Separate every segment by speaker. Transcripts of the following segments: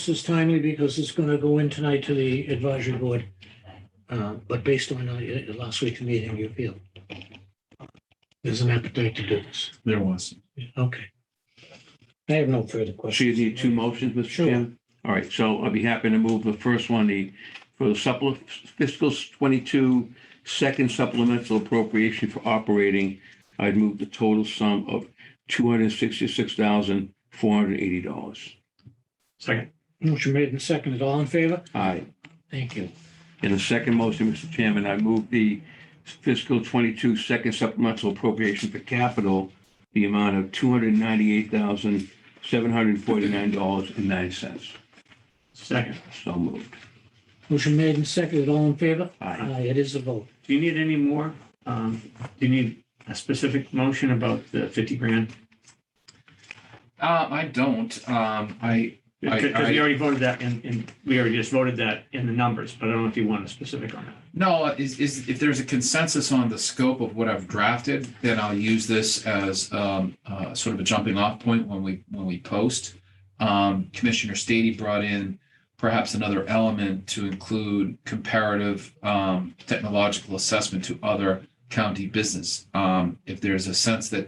Speaker 1: This is timely because it's going to go in tonight to the advisory board. Uh, But based on uh, last week's meeting, you feel there's an appetite to do this.
Speaker 2: There was.
Speaker 1: Okay. I have no further questions.
Speaker 3: So you need two motions, Mr.
Speaker 1: Sure.
Speaker 3: Chairman? All right, so I'd be happy to move the first one, the, for the supplement, fiscal twenty-two, second supplemental appropriation for operating, I'd move the total sum of two hundred sixty-six thousand, four hundred eighty dollars.
Speaker 2: Second.
Speaker 1: Motion made and seconded. All in favor?
Speaker 3: Aye.
Speaker 1: Thank you.
Speaker 3: And the second motion, Mr. Chairman, I move the fiscal twenty-two second supplemental appropriation for capital, the amount of two hundred ninety-eight thousand, seven hundred forty-nine dollars and nine cents.
Speaker 2: Second.
Speaker 3: So moved.
Speaker 1: Motion made and seconded. All in favor?
Speaker 3: Aye.
Speaker 1: Aye, it is a vote.
Speaker 2: Do you need any more? Um, do you need a specific motion about the fifty grand?
Speaker 4: Uh, I don't. Um, I, I-
Speaker 2: Because we
Speaker 4: I-
Speaker 2: already voted that in, in, we already just voted that in the numbers, but I don't know if you want a specific on that.
Speaker 4: no, is, is, if there's a consensus on the scope of what I've drafted, then I'll use this as, um, uh, sort of a jumping off point when we, when we post. Um, Commissioner Stady brought in perhaps another element to include comparative, um, technological assessment to other county business. Um, if there's a sense that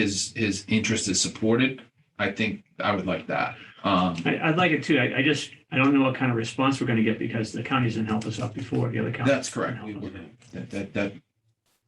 Speaker 4: his, his interest is supported, I think I would like that. Um,
Speaker 2: I, I'd like it too. I, I just, I don't know what kind of response we're gonna get because the counties didn't help us out before, the other counties.
Speaker 4: That's correct. We were, that, that, that,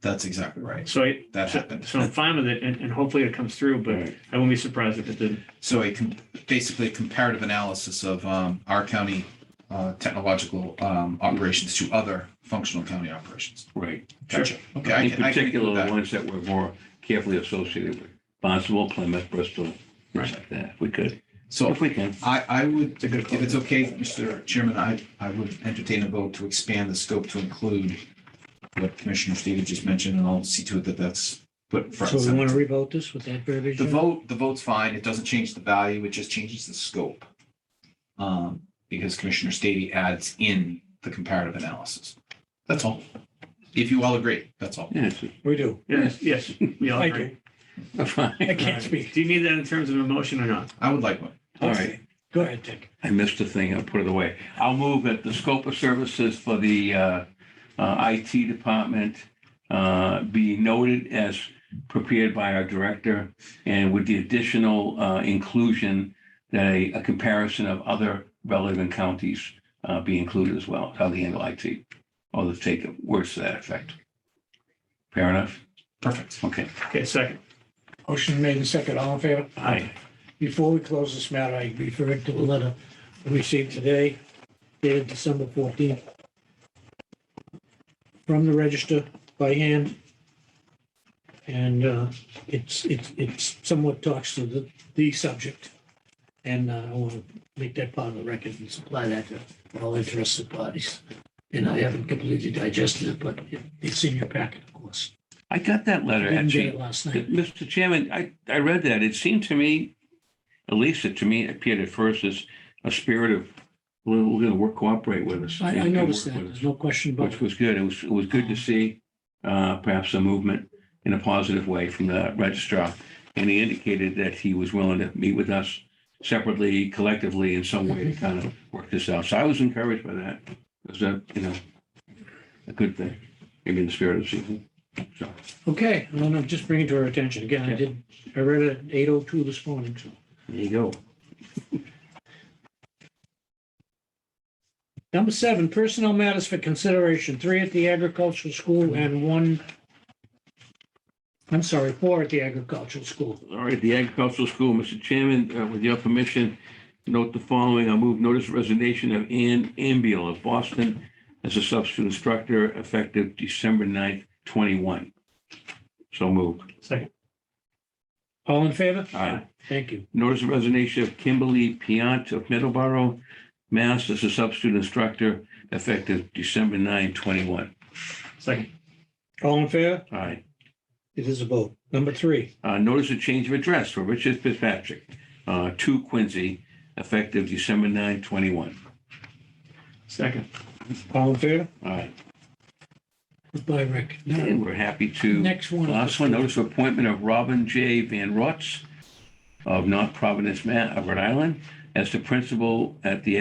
Speaker 4: that's exactly right.
Speaker 2: So, I-
Speaker 4: That
Speaker 2: so
Speaker 4: happened.
Speaker 2: so I'm fine with it and, and hopefully it comes through,
Speaker 3: All
Speaker 2: but
Speaker 3: right.
Speaker 2: I wouldn't be surprised if it didn't.
Speaker 4: So a, com- basically a comparative analysis of, um, our county, uh, technological, um, operations to other functional county operations.
Speaker 3: Right.
Speaker 4: Gotcha. Okay. I
Speaker 3: In
Speaker 4: can- I can
Speaker 3: particular,
Speaker 4: include
Speaker 3: the
Speaker 4: that.
Speaker 3: ones that were more carefully associated with Bonsall, Plymouth, Bristol, things like that, if we could,
Speaker 4: So
Speaker 3: if we can.
Speaker 4: I, I would,
Speaker 2: It's a good
Speaker 4: if
Speaker 2: call.
Speaker 4: it's okay, Mr. Chairman, I, I would entertain a vote to expand the scope to include what Commissioner Stady just mentioned, and I'll see to it that that's put front
Speaker 1: So
Speaker 4: and
Speaker 1: we
Speaker 4: center.
Speaker 1: want to revote this with that
Speaker 4: The
Speaker 1: provision?
Speaker 4: vote, the vote's fine. It doesn't change the value. It just changes the scope. Um, because Commissioner Stady adds in the comparative analysis. That's all. If you all agree, that's all.
Speaker 3: Yes,
Speaker 1: We do.
Speaker 2: Yes, yes, we all
Speaker 1: I
Speaker 2: agree.
Speaker 1: do. I
Speaker 3: fine.
Speaker 1: can't speak.
Speaker 2: Do you need that in terms of a motion or not?
Speaker 4: I would like one.
Speaker 3: All right.
Speaker 1: Okay. Go ahead, Dick.
Speaker 3: I missed a thing, I'll put it away. I'll move that the scope of services for the uh, uh, IT department uh, be noted as prepared by our director and with the additional uh, inclusion that a a comparison of other relevant counties uh, be included as well, how they handle IT, or the take of words to that effect. Fair enough?
Speaker 4: Perfect.
Speaker 3: Okay.
Speaker 2: Okay, second.
Speaker 1: Motion made and seconded. All in favor?
Speaker 3: Aye.
Speaker 1: Before we close this matter, I referred to a letter we received today dated December 14th from the register by hand. And uh, it's, it's, it's somewhat talks to the, the subject. And uh, I want to make that part of the record and supply that to all interested parties. And I haven't completely digested it, but it- it's in your packet, of course.
Speaker 3: I got that letter,
Speaker 1: Didn't get
Speaker 3: actually.
Speaker 1: it last night.
Speaker 3: Mr. Chairman, I, I read that. It seemed to me, at least it to me it appeared at first as a spirit of, we're, we're gonna work, cooperate with us.
Speaker 1: I,
Speaker 3: and-
Speaker 1: I
Speaker 3: and
Speaker 1: noticed that. Oh.
Speaker 3: work with us,
Speaker 1: There's no question about
Speaker 3: Which
Speaker 1: it.
Speaker 3: was good. It was, it was good to see, uh, perhaps a movement in a positive way from the registrar. And he indicated that he was willing to meet with us separately, collectively, in some way to kind of work this out. So I was encouraged by that. It was a, you know, a good thing, maybe in the spirit of the season. So,
Speaker 1: Okay, no, no, just bring it to our attention. Again, I
Speaker 3: Yeah.
Speaker 1: did, I read it at eight oh two this morning, so.
Speaker 3: there you go.
Speaker 1: Number seven, personnel matters for consideration, three at the agricultural school and one, I'm sorry, four at the agricultural school.
Speaker 3: All right, the agricultural school, Mr. Chairman, uh, with your permission, note the following. I move notice of resignation of Ann Ambiel of Boston as a substitute instructor effective December 9th, 21. So moved.
Speaker 2: Second.
Speaker 1: All in favor?
Speaker 3: Aye.
Speaker 1: Thank you.
Speaker 3: Notice of resignation of Kimberly Piant of Middleborough, Mass. as a substitute instructor effective December 9th, 21.
Speaker 2: Second.
Speaker 1: All in favor?
Speaker 3: Aye.
Speaker 1: It is a vote. Number three,
Speaker 3: Uh, Notice of change of address for Richard Fitzpatrick, uh, 2 Quincy, effective December 9th, 21.
Speaker 2: Second.
Speaker 1: all in favor?
Speaker 3: Aye.
Speaker 1: Goodbye, Rick.
Speaker 3: And we're happy to.
Speaker 1: Next one.
Speaker 3: Last one, notice of appointment of Robin J. Van Rotz of North Providence, Ma- uh, Rhode Island, as the principal at the